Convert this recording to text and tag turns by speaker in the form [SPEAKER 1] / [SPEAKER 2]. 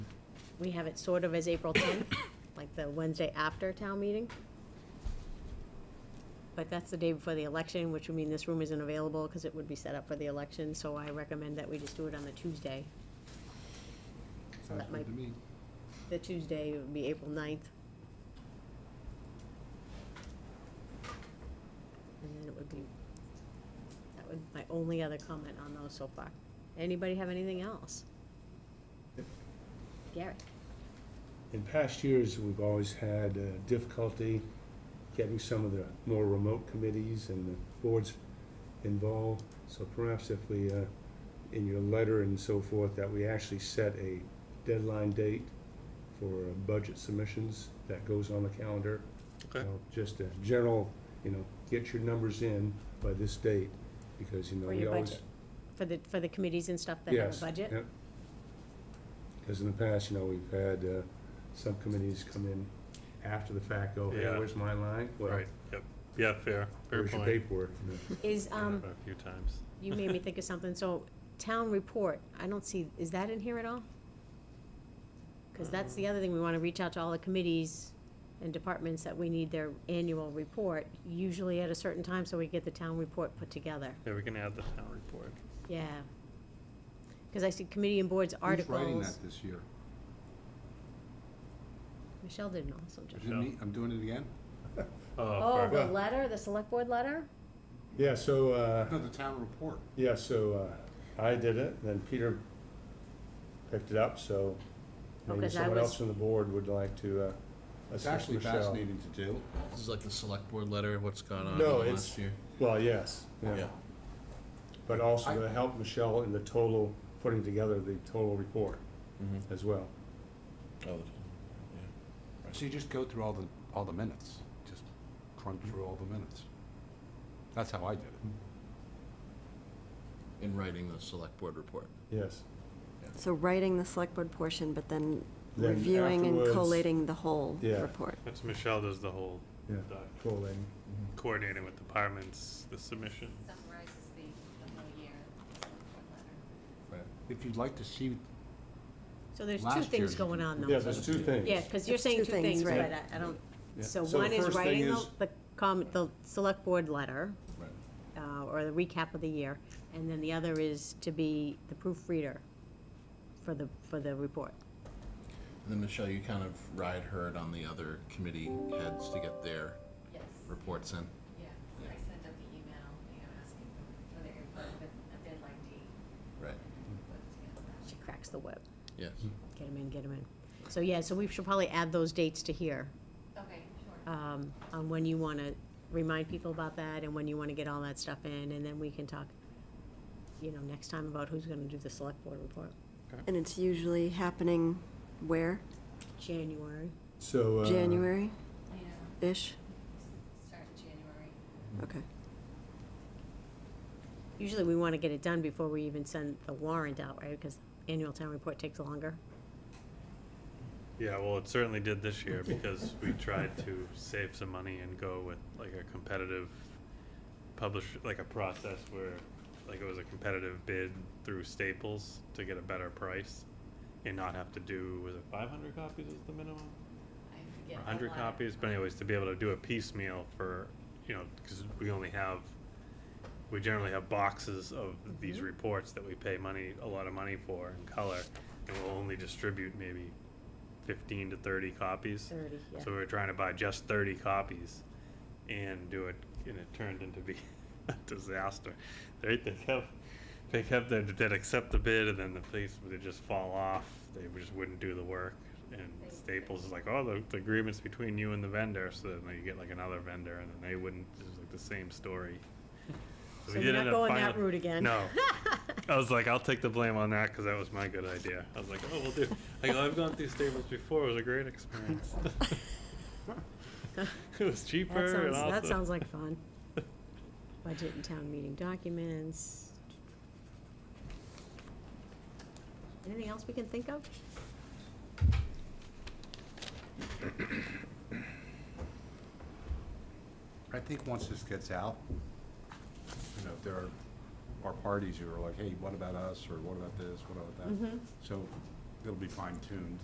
[SPEAKER 1] we have it sort of as April tenth, like the Wednesday after town meeting. But that's the day before the election, which would mean this room isn't available because it would be set up for the election, so I recommend that we just do it on the Tuesday. So
[SPEAKER 2] Sounds
[SPEAKER 1] that
[SPEAKER 2] good
[SPEAKER 1] might,
[SPEAKER 2] to me.
[SPEAKER 1] the Tuesday would be April ninth. And then it would be, that would, my only other comment on those so far. Anybody have anything else? Gary?
[SPEAKER 3] In past years, we've always had uh, difficulty getting some of the more remote committees and the boards involved. So perhaps if we, uh, in your letter and so forth, that we actually set a deadline date for uh, budget submissions that goes on the calendar.
[SPEAKER 4] Okay.
[SPEAKER 3] You know, Just a general, you know, get your numbers in by this date, because, you know,
[SPEAKER 1] For
[SPEAKER 3] we
[SPEAKER 1] your
[SPEAKER 3] always.
[SPEAKER 1] budget, for the, for the committees and stuff that have
[SPEAKER 3] Yes.
[SPEAKER 1] a budget?
[SPEAKER 3] Because in the past, you know, we've had uh, some committees come in after the fact, go, hey,
[SPEAKER 4] Yeah.
[SPEAKER 3] where's my line? Well,
[SPEAKER 4] Right, yep, yeah, fair, fair
[SPEAKER 3] Where's your
[SPEAKER 4] point.
[SPEAKER 3] paperwork? You know,
[SPEAKER 1] Is,
[SPEAKER 4] Been up
[SPEAKER 1] um,
[SPEAKER 4] A few times.
[SPEAKER 1] you made me think of something, so town report, I don't see, is that in here at all? Because that's the other thing, we want to reach out to all the committees and departments that we need their annual report, usually at a certain time, so we get the town report put together,
[SPEAKER 4] Yeah, we can add the town report.
[SPEAKER 1] yeah. Because I see committee and boards
[SPEAKER 2] Who's writing
[SPEAKER 1] articles,
[SPEAKER 2] that this year?
[SPEAKER 1] Michelle did an awesome job.
[SPEAKER 2] Is it me? I'm doing it again?
[SPEAKER 1] Oh,
[SPEAKER 4] fair.
[SPEAKER 1] the letter, the select board letter?
[SPEAKER 3] Yeah, so,
[SPEAKER 2] No,
[SPEAKER 3] uh,
[SPEAKER 2] the town report.
[SPEAKER 3] yeah, so uh, I did it, then Peter picked it up, so
[SPEAKER 1] Oh,
[SPEAKER 3] maybe
[SPEAKER 1] 'cause I
[SPEAKER 3] someone
[SPEAKER 1] was-
[SPEAKER 3] else on the board would like to uh,
[SPEAKER 2] It's
[SPEAKER 3] assist
[SPEAKER 2] actually
[SPEAKER 3] Michelle.
[SPEAKER 2] fascinating to do.
[SPEAKER 5] This is like the select board letter, what's gone on in the
[SPEAKER 3] No,
[SPEAKER 5] last
[SPEAKER 3] it's,
[SPEAKER 5] year.
[SPEAKER 3] well, yes,
[SPEAKER 5] Yeah.
[SPEAKER 3] yeah. But also
[SPEAKER 2] I-
[SPEAKER 3] to help Michelle in the total, putting together the total report as well.
[SPEAKER 5] Oh,
[SPEAKER 2] So you just go through all the, all the minutes, just crunch through all the minutes. That's how I did it.
[SPEAKER 5] In writing the select board report.
[SPEAKER 3] Yes.
[SPEAKER 6] So writing the select board portion, but then
[SPEAKER 3] Then
[SPEAKER 6] reviewing and
[SPEAKER 3] afterwards-
[SPEAKER 6] collating the whole
[SPEAKER 3] Yeah.
[SPEAKER 6] report.
[SPEAKER 4] That's Michelle does the whole
[SPEAKER 3] Yeah,
[SPEAKER 4] doc,
[SPEAKER 3] collating.
[SPEAKER 4] coordinating with departments, the submission.
[SPEAKER 7] summarizes the, the whole year, the report letter.
[SPEAKER 2] If you'd like to see,
[SPEAKER 1] So there's two
[SPEAKER 2] Last
[SPEAKER 1] things
[SPEAKER 2] year's-
[SPEAKER 1] going on though.
[SPEAKER 3] Yeah, there's two things.
[SPEAKER 1] Yeah, because you're
[SPEAKER 6] It's
[SPEAKER 1] saying two
[SPEAKER 6] two
[SPEAKER 1] things,
[SPEAKER 6] things,
[SPEAKER 1] but
[SPEAKER 6] right.
[SPEAKER 1] I I don't,
[SPEAKER 3] Yeah.
[SPEAKER 1] so
[SPEAKER 3] So the
[SPEAKER 1] one is
[SPEAKER 3] first thing
[SPEAKER 1] writing the,
[SPEAKER 3] is-
[SPEAKER 1] the comment, the select board letter, uh, or the recap of the year, and then the other is to be the proofreader for the, for the report.
[SPEAKER 5] And then Michelle, you kind of ride herd on the other committee heads to get their
[SPEAKER 7] Yes,
[SPEAKER 5] reports in.
[SPEAKER 7] yeah, I sent out the email, you know, asking for their input, but a deadline date,
[SPEAKER 5] Right.
[SPEAKER 7] put it together.
[SPEAKER 1] She cracks the whip.
[SPEAKER 5] Yes.
[SPEAKER 1] Get him in, get him in. So, yeah, so we should probably add those dates to here,
[SPEAKER 7] Okay, sure.
[SPEAKER 1] um, on when you want to remind people about that and when you want to get all that stuff in, and then we can talk, you know, next time about who's going to do the select board report.
[SPEAKER 6] And it's usually happening where?
[SPEAKER 1] January.
[SPEAKER 3] So. uh,
[SPEAKER 6] January-ish?
[SPEAKER 7] Yeah, start in January.
[SPEAKER 6] Okay.
[SPEAKER 1] Usually we want to get it done before we even send the warrant out, right? Because annual town report takes longer.
[SPEAKER 4] Yeah, well, it certainly did this year because we tried to save some money and go with like a competitive publish, like a process where, like it was a competitive bid through Staples to get a better price and not have to do, was it five hundred copies is the minimum?
[SPEAKER 7] I forget.
[SPEAKER 4] or
[SPEAKER 7] the
[SPEAKER 4] 100
[SPEAKER 7] letter.
[SPEAKER 4] copies, but anyways, to be able to do a piecemeal for, you know, because we only have, we generally have boxes of
[SPEAKER 7] Mm-hmm.
[SPEAKER 4] these reports that we pay money, a lot of money for in color, and we'll only distribute maybe 15 to 30 copies.
[SPEAKER 1] Thirty, yeah.
[SPEAKER 4] So we were trying to buy just 30 copies and do it, and it turned into be a disaster. They, they kept, they kept, their- they'd accept the bid and then the place would just fall off. They just wouldn't do the work. And Staples is like, oh, the, the agreement's between you and the vendor. So then you get like another vendor and then they wouldn't, it's like the same story.
[SPEAKER 1] So
[SPEAKER 4] we
[SPEAKER 1] you're
[SPEAKER 4] did
[SPEAKER 1] not
[SPEAKER 4] end up
[SPEAKER 1] going that
[SPEAKER 4] finally-
[SPEAKER 1] route again.
[SPEAKER 4] No. I was like, I'll take the blame on that because that was my good idea. I was like, oh, we'll do. Like, I've gone through Staples before. It was a great experience. it was cheaper.
[SPEAKER 1] That
[SPEAKER 4] and
[SPEAKER 1] sounds, that
[SPEAKER 4] also-
[SPEAKER 1] sounds like fun. Budget and town meeting documents. Anything else we can think of?
[SPEAKER 2] I think once this gets out, you know, there are, are
[SPEAKER 1] Mm-hmm.
[SPEAKER 2] parties who are like, hey, what about us, or what about this, what about that? So it'll be fine tuned.